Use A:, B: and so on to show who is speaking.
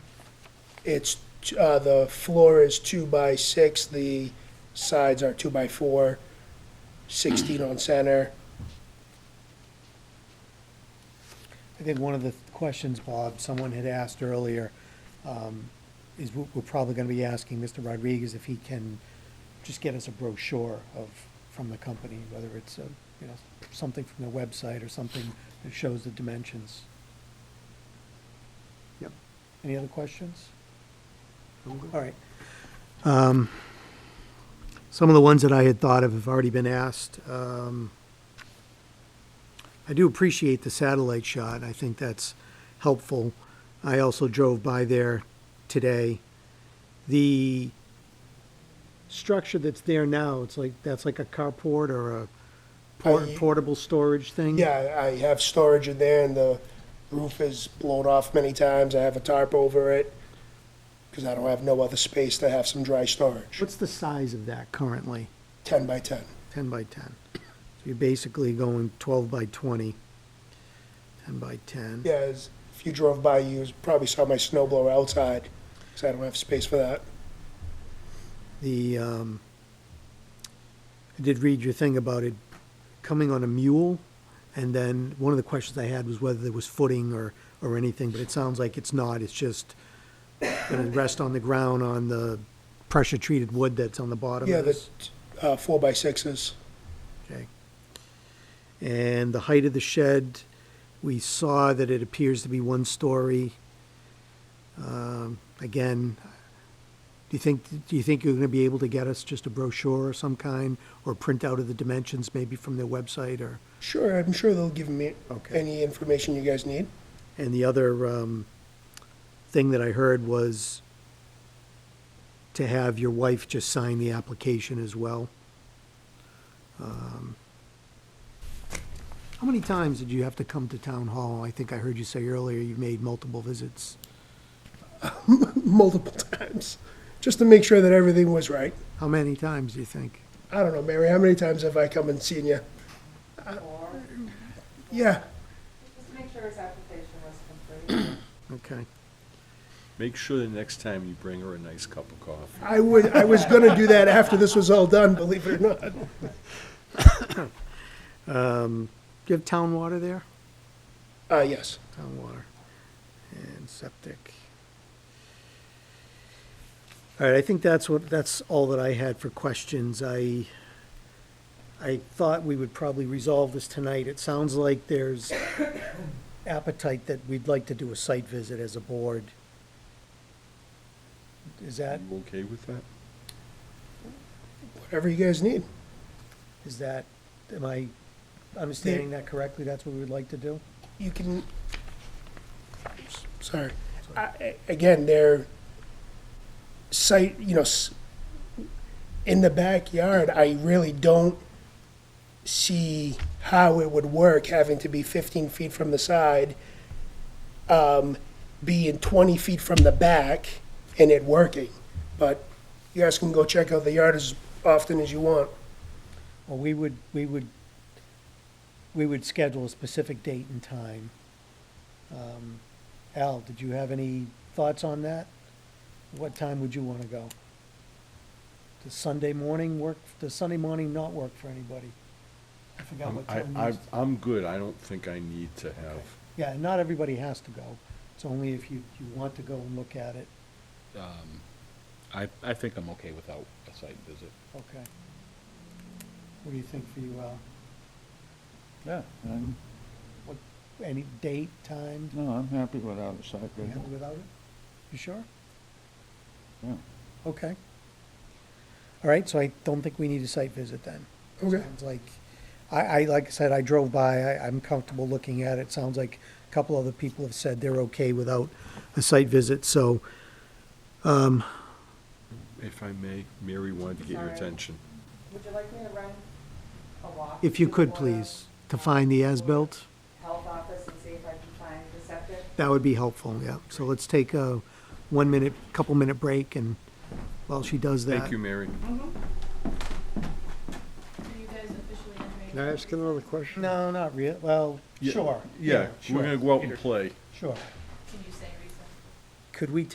A: It's, t- uh, the floor is two by six, the sides are two by four, sixteen on center.
B: I think one of the questions, Bob, someone had asked earlier, um, is we- we're probably going to be asking Mr. Rodriguez if he can just get us a brochure of, from the company, whether it's, a, you know, something from their website or something that shows the dimensions. Yep. Any other questions? All right. Um, Some of the ones that I had thought of have already been asked. Um, I do appreciate the satellite shot. I think that's helpful. I also drove by there today. The structure that's there now, it's like, that's like a carport or a por-
A: I-
B: portable storage thing?
A: Yeah, I have storage in there and the roof is blown off many times. I have a tarp over it because I don't have no other space to have some dry storage.
B: What's the size of that currently?
A: Ten by ten.
B: 10 by 10. So you're basically going 12 by 20, 10 by 10.
A: Yeah, as- if you drove by, you probably saw my snow blower outside because I don't have space for that.
B: The, um, I did read your thing about it coming on a mule, and then one of the questions I had was whether there was footing or, or anything, but it sounds like it's not, it's just gonna rest on the ground on the pressure-treated wood that's on the bottom
A: Yeah,
B: of
A: the
B: this.
A: uh, four by sixes.
B: Okay. And the height of the shed, we saw that it appears to be one story. Um, Again, do you think, do you think you're gonna be able to get us just a brochure of some kind? Or print out of the dimensions maybe from their website or,
A: Sure, I'm sure they'll give me
B: Okay.
A: any information you guys need.
B: and the other, um, thing that I heard was to have your wife just sign the application as well. Um, How many times did you have to come to town hall? I think I heard you say earlier you made multiple visits.
A: multiple times just to make sure that everything was right.
B: How many times do you think?
A: I don't know, Mary, how many times have I come and seen you?
C: Or
A: Yeah,
C: just make sure his application was complete.
B: Okay.
D: Make sure the next time you bring her a nice cup of coffee.
A: I would. I was going to do that after this was all done, believe it or not.
B: Do you have town water there?
A: Uh, yes.
B: Town water and septic. All right, I think that's what, that's all that I had for questions. I, I thought we would probably resolve this tonight. It sounds like there's appetite that we'd like to do a site visit as a board. Is that?
D: You okay with that?
A: Whatever you guys need.
B: Is that, am I understanding that correctly? That's what we would like to do?
A: You can. Sorry. I, I- again, they're site. You know, s- in the backyard. I really don't see how it would work having to be 15 feet from the side, um, being 20 feet from the back, and it working. But you guys can go check out the yard as often as you want.
B: Well, we would, we would, we would schedule a specific date and time. Um, Al, did you have any thoughts on that? What time would you want to go? Does Sunday morning work, does Sunday morning not work for anybody? I forgot
D: I'm-
B: what time
D: Um, I,
B: it
D: I,
B: is.
D: I'm good. I don't think I need to have,
B: Yeah, not everybody has to go. It's only if you, you want to go and look at it.
E: I, I think I'm okay without a site visit.
B: Okay. What do you think for you, Al?
F: Yeah, I'm,
B: What, any date, time?
F: no, I'm happy without a site
B: You
F: visit.
B: happy without it? You sure?
F: Yeah.
B: Okay. All right, so I don't think we need a site visit then.
A: Okay.
B: Sounds like, I, I, like I said, I drove by, I, I'm comfortable looking at it. Sounds like a couple other people have said they're okay without a site visit, so,
D: if I may, Mary wanted to get your
C: Sorry.
D: attention.
C: Would you like me to run a walk?
B: if you could
C: before the
B: please, to find the as-built,
C: Health office and see if I can find the septic?
B: that would be helpful, yeah. So let's take a one-minute, couple-minute break, and while she does that.
D: Thank you, Mary.
G: Can I ask another question?
B: No, not real, well,
D: Yeah,
B: sure.
D: Yeah, we're
B: sure,
D: gonna go out and play.
B: Sure.
G: Can you say reason?
B: Could we